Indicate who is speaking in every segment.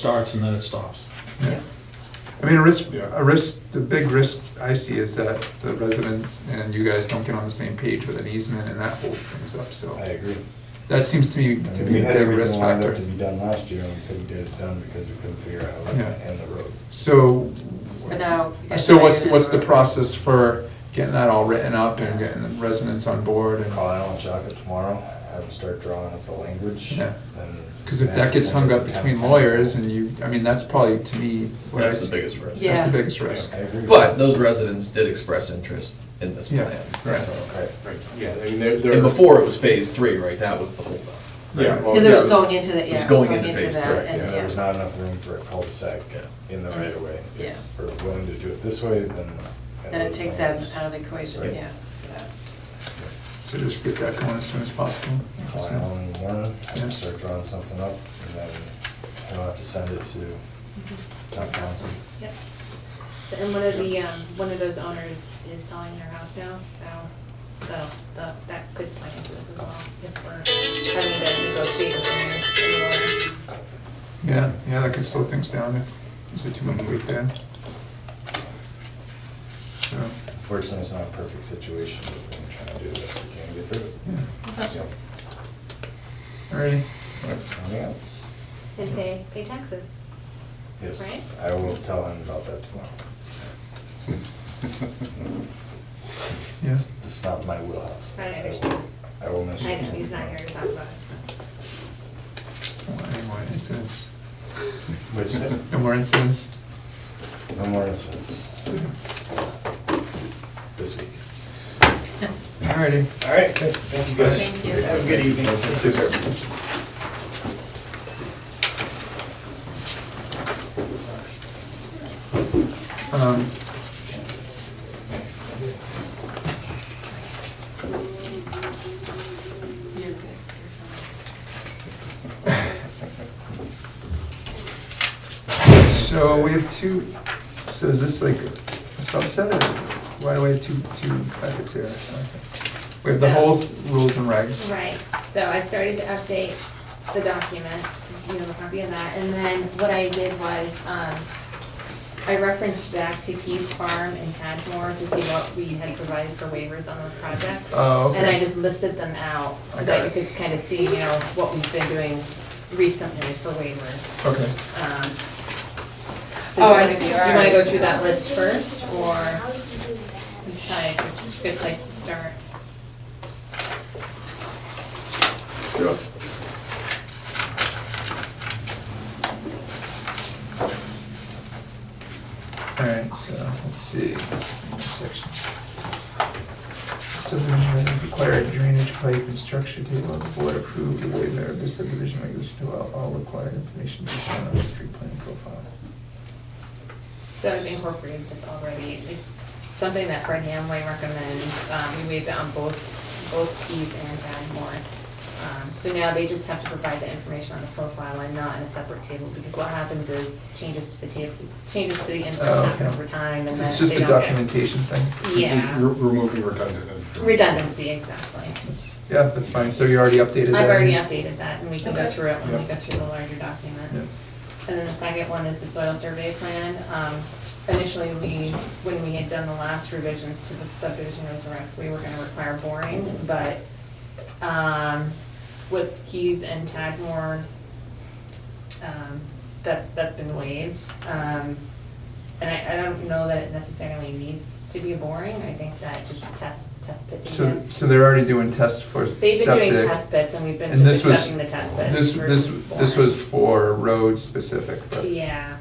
Speaker 1: starts and then it stops.
Speaker 2: I mean, a risk,
Speaker 1: Yeah.
Speaker 2: a risk, the big risk I see is that the residents and you guys don't get on the same page with an easement and that holds things up,
Speaker 3: I
Speaker 2: so.
Speaker 3: agree.
Speaker 2: That seems to be,
Speaker 3: I
Speaker 2: to
Speaker 3: mean, we
Speaker 2: be a
Speaker 3: had
Speaker 2: big risk
Speaker 3: everything lined up
Speaker 2: factor.
Speaker 3: to be done last year, and we couldn't get it done because we couldn't figure out how
Speaker 2: Yeah.
Speaker 3: to end the road.
Speaker 2: So,
Speaker 4: But now. you guys
Speaker 2: so
Speaker 4: are
Speaker 2: what's,
Speaker 4: gonna-
Speaker 2: what's the process for getting that all written up and getting the residents on board and?
Speaker 3: Call Alan Shaka tomorrow, have him start drawing up the language.
Speaker 2: Yeah.
Speaker 3: then-
Speaker 2: Cause if that gets hung up between lawyers and you, I mean, that's probably to me what I
Speaker 5: That's
Speaker 2: see-
Speaker 5: the biggest risk.
Speaker 4: Yeah.
Speaker 2: That's the biggest risk.
Speaker 3: I agree.
Speaker 5: But those residents did express interest in this
Speaker 2: Yeah,
Speaker 5: plan.
Speaker 2: right.
Speaker 5: so-
Speaker 3: Okay.
Speaker 1: Right, yeah, I mean, they're, they're.
Speaker 5: And before it was phase three, right, that was the holdup. right?
Speaker 2: Yeah, well,
Speaker 4: Because it was
Speaker 2: yeah,
Speaker 4: going into the,
Speaker 5: it
Speaker 4: yeah,
Speaker 5: was
Speaker 4: it was
Speaker 5: going
Speaker 4: going
Speaker 5: into
Speaker 4: into
Speaker 5: phase
Speaker 4: that,
Speaker 3: Correct, yeah,
Speaker 4: and
Speaker 3: there was
Speaker 4: yeah. Mm-hmm.
Speaker 3: not enough room for a cul-de-sac
Speaker 5: Yeah.
Speaker 3: in the right of way.
Speaker 4: Yeah.
Speaker 3: If we're willing to do it this way, then.
Speaker 4: Then it takes that out of the equation,
Speaker 3: Right.
Speaker 4: yeah.
Speaker 2: So just get that going as soon as possible.
Speaker 3: Call Alan in the morning, have
Speaker 2: Yeah.
Speaker 3: him start drawing something up, and then he'll have to send it to town council.
Speaker 6: Yep. So- And one of the, um, one of those owners is selling their house now, so, so the- that could play into this as well, if we're having to negotiate with them.
Speaker 2: Yeah, yeah, that could slow things down if there's a too much weight there. So,
Speaker 3: Unfortunately, it's not a perfect situation, but we're trying to do the best we can to get through it.
Speaker 2: yeah,
Speaker 3: So,
Speaker 2: alrighty.
Speaker 3: Anything else?
Speaker 6: And pay, pay taxes.
Speaker 3: Yes,
Speaker 6: Right?
Speaker 3: I will tell him about that tomorrow.
Speaker 2: Yeah.
Speaker 3: It's not my wheelhouse.
Speaker 6: I
Speaker 3: will-
Speaker 6: understand.
Speaker 3: I will
Speaker 6: I
Speaker 3: mention.
Speaker 6: know, he's not here to talk about it.
Speaker 2: Well, Any more incidents?
Speaker 3: What'd you say?
Speaker 2: No more incidents?
Speaker 3: No more incidents this week.
Speaker 2: Alrighty.
Speaker 3: All right, good. thank you guys.
Speaker 4: Thank you.
Speaker 3: Have a good evening.
Speaker 2: Um,
Speaker 4: You're good, you're
Speaker 2: So we have two, so is this like a subset or why do we have two, two packets here? Okay. We have the whole s- rules and regs.
Speaker 6: Right, so I started to update the document, so you have a copy of that, and then what I did was, um, I referenced back to Keys Farm and Tadmore to see what we had provided for waivers on those projects.
Speaker 2: Oh, okay.
Speaker 6: And I just listed them out,
Speaker 2: I got
Speaker 6: so that you
Speaker 2: it.
Speaker 6: could kind of see, you know, what we've been doing recently for waivers.
Speaker 2: Okay.
Speaker 6: Um,
Speaker 4: Oh, I
Speaker 6: do you
Speaker 4: see, all
Speaker 6: wanna- Do you wanna
Speaker 4: right.
Speaker 6: go through that list first, or decide which good place to start?
Speaker 2: Alright, so let's see, section. Subdivision may require a drainage pipe and structure table, the board approved the waiver of the subdivision regulation to allow all required information to be shown on the street plan profile.
Speaker 6: So I've incorporated this already. It's something that Fred Hamway recommends. Um, we waived it on both, both Keys and Badmore. Um, so now they just have to provide the information on the profile and not in a separate table, because what happens is changes to the table, changes to the info
Speaker 2: Oh,
Speaker 6: happen
Speaker 2: okay.
Speaker 6: over time, and
Speaker 2: So
Speaker 6: then
Speaker 2: It's just
Speaker 6: they
Speaker 2: a
Speaker 6: don't get-
Speaker 2: documentation thing.
Speaker 6: Yeah,
Speaker 1: Re- Removing redundant. information.
Speaker 6: redundancy, exactly.
Speaker 2: That's- Yeah, that's fine, so you already updated that?
Speaker 6: I've already updated that, and we can go
Speaker 4: Okay.
Speaker 6: through it when we
Speaker 2: Yeah.
Speaker 6: go through the larger document.
Speaker 2: Yeah.
Speaker 6: And then the second one is the soil survey plan. Um, Initially, we, when we had done the last revisions to the subdivision rules and regs, we were gonna require borings, but um, with Keys and Tadmore, um, that's, that's been waived. Um, And I, I don't know that it necessarily needs to be boring. I think that just test, test pits.
Speaker 2: So, so they're already doing tests for septic?
Speaker 6: They've been doing test bits and we've been
Speaker 2: And this
Speaker 6: just
Speaker 2: was-
Speaker 6: accepting the test bits.
Speaker 2: This, this,
Speaker 6: versus
Speaker 2: this
Speaker 6: boring.
Speaker 2: was uh, for road specific, but.
Speaker 6: Yeah,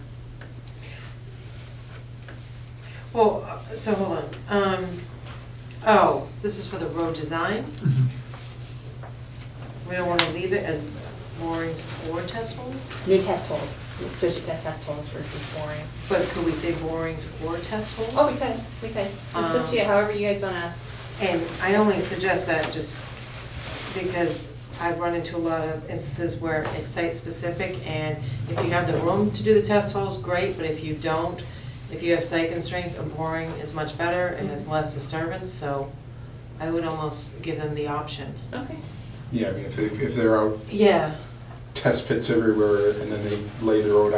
Speaker 4: Well, uh, so hold on, um, oh, this is for the road design,
Speaker 2: Mhm.
Speaker 4: we don't wanna leave it as borings or test holes?
Speaker 6: new test holes, We switch it to test holes versus borings.
Speaker 4: But could we say borings or test holes?
Speaker 6: Oh, we could, we could, it's up to you,
Speaker 4: Um,
Speaker 6: however you guys wanna,
Speaker 4: And I only suggest that just because I've run into a lot of instances where it's site-specific, and if you have the room to do the test holes, great, but if you don't, if you have site constraints, a boring is much better and is less disturbance, so I would almost give them the option.
Speaker 6: okay.
Speaker 7: Yeah, I mean, if, if if there are
Speaker 4: Yeah.
Speaker 7: test pits everywhere and then they lay the road out